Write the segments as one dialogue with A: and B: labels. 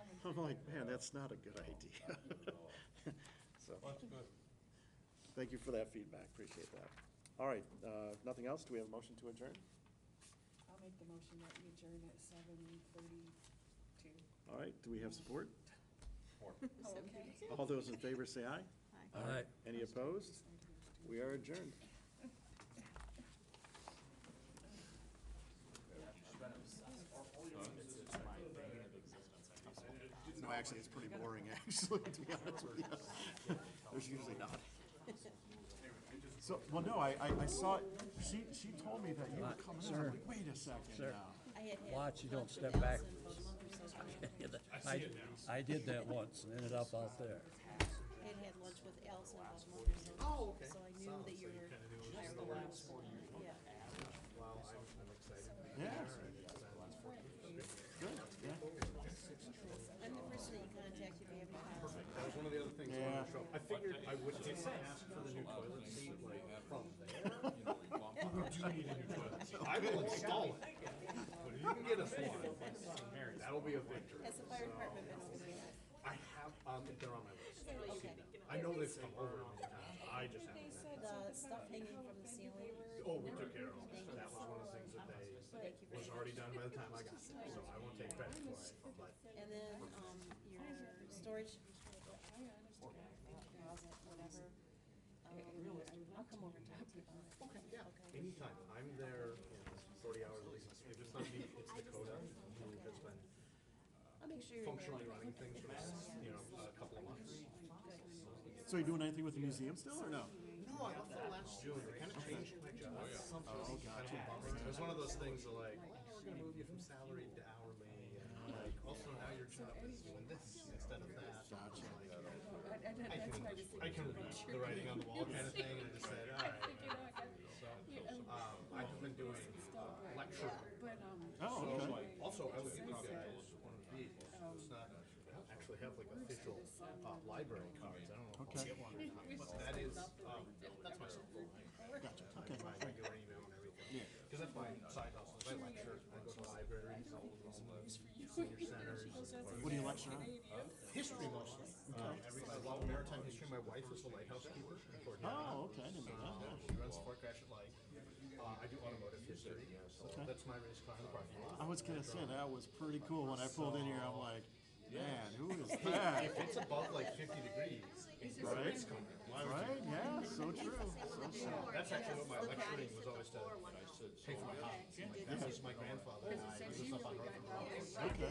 A: I'm like, man, that's not a good idea. So,
B: That's good.
A: thank you for that feedback, appreciate that. All right, uh, nothing else? Do we have a motion to adjourn?
C: I'll make the motion that we adjourn at seven thirty-two. Oh,
A: All right, do we have support?
C: Okay.
A: All those in favor say aye.
D: All right.
A: Any opposed? We are adjourned. No, actually, it's pretty boring, actually, to be honest with you. There's usually not. So, well, no, I, I I saw, she, she told me that you were coming in, I'm like, wait a second now.
D: Watch, you don't step back. I I did that once and ended up out there.
E: I had had lunch with Allison about Mother's Day. Oh, okay. So I knew that you were. higher than I was. Yeah.
A: Yeah,
E: I'm the person that you contact if you have any problems.
A: yeah.
F: I figured I would not ask for the new toilet seat, like, from there. You know, we bump up.
B: You do need a new toilet seat.
F: I will install it. But if you can get us one, that'll be a victory.
E: Has the fire department been over there?
F: I have, um, they're on my list.
E: Okay.
F: I know they've come over many times, I just haven't. been.
E: The stuff hanging from the ceiling.
F: Oh, we took care of it. That was one of the things that they, was already done by the time I got there, so I won't take credit for it, but
E: And then, um, your storage, closet, whatever. Um, I'll come over and talk to you about it. Okay, yeah.
F: Anytime, I'm there in forty hours at least, if it's not me, it's Dakota, who has been
E: I'll make sure you're
F: functionally
E: there.
F: running things for the last, you know, a couple of months.
A: So you doing anything with the museum still, or no?
F: No, I left there last June, they kind of changed my job. Oh, gotcha. It was one of those things that like, "Oh, we're gonna move you from salaried to hourly, and like, also now your job is doing this instead of that. Gotcha.
C: I, I, that's why I just.
F: I can read the writing on the wall kind of thing, and I just said, alright. Um, I've been doing uh, lecture.
C: But, um.
A: Oh,
F: So,
A: okay.
F: like, Also, I would give you guys one of these, it's not, I don't actually have like official, uh, library cards, I don't know if I'll get one or not, but that is, um, that's my cell phone. Gotcha. My regular email and everything, cause that's my side hustle, is I lecture, I go to libraries, all the senior centers.
A: What do you lecture on?
F: History mostly, um, every, I love maritime history, my wife is a lighthouse keeper, coordinator.
A: Oh, okay, I didn't know that.
F: Um, She runs Fort Gratiot Light. Uh, I do automotive history, so that's my race car in the parking lot.
A: I was gonna say, that was pretty cool. When I pulled in here, I'm like, man, who is that?
F: If it's above like fifty degrees, it's a
A: Right.
F: race car. Why would you-
A: Right? Yeah, so true. So true.
F: That's actually what my lecturing was always to pay for my house. This is my grandfather and I, he lives up on North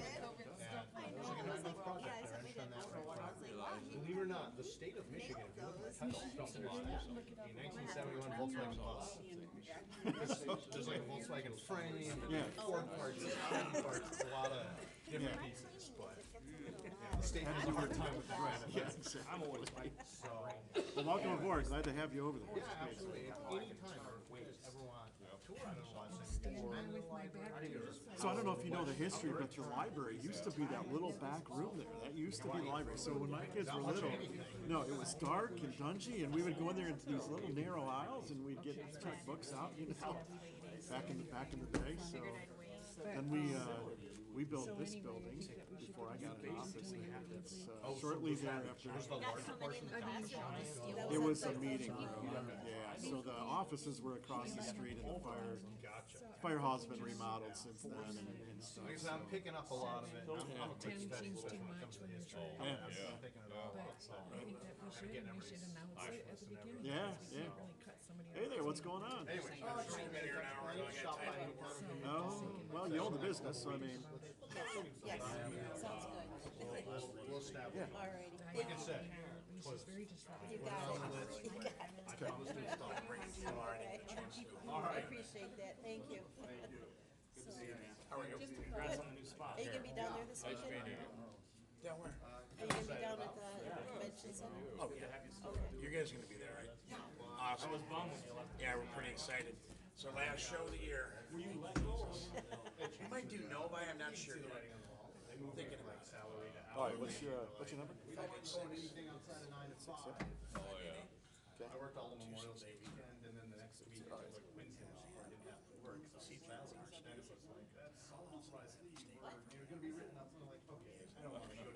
F: And there's like a nine-month project there, and done that for a while. Believe it or not, the state of Michigan, if you look at my title, considers this a nineteen seventy-one Volkswagen bus. There's- There's like a Volkswagen frame,
A: Yeah.
F: and Ford parts, Audi parts, it's a lot of different pieces, but yeah, the state has a hard time with that.
A: I'm always Well, welcome aboard. Glad to have you over there.
F: Yeah, absolutely. At any time, if you just ever want a tour out of Washington, or
A: So I don't know if you know the history, but the library used to be that little back room there. That used to be the library. So when my kids were little, no, it was dark and dungy, and we would go in there into these little narrow aisles, and we'd get check books out, you know, back in the back in the day. So then we uh, we built this building before I got an office, and it's uh, shortly thereafter. It was a meeting room, yeah, so the offices were across the street and the fire,
F: Gotcha.
A: fire hall's been remodeled since then and, and stuff.
F: Because I'm picking up a lot of it. I'm I'm a quick vegetable when it comes to history.
A: Yeah.
F: I'm picking it all up.
G: I think that we should, and we should announce it at the beginning.
A: Yeah,
G: because we
A: yeah.
G: can't really cut somebody
A: Hey
G: off.
A: there, what's going on?
F: Anyway, I'm sure we'll be here an hour and I got time to work.
A: Oh, well, you own the business, so I mean,
E: Yes, sounds good.
F: We'll establish.
E: All righty.
F: Like I said,
G: It was just very disruptive.
E: You got it.
F: I promise to install brakes
E: All
F: tomorrow.
E: right. I appreciate that. Thank you. Thank you. Good to see you, man. How are you? Congrats on the new spot. Are you gonna be down there this weekend? Down where? Are you gonna be down at the convention center? Oh,
H: You guys are gonna be there, right? Yeah. Awesome. I was bummed when you left. Yeah, we're pretty excited. So last show of the year. Were you We might do Novi, I'm not sure yet. I'm Thinking about it.
A: all right, what's your, uh, what's your number?
F: We don't install anything outside of nine to five.
H: Oh,
F: I worked all the Memorial Day weekend and then the next week I was like, Wednesday, I didn't have to work. So that was like, that's all surprising. You're gonna be written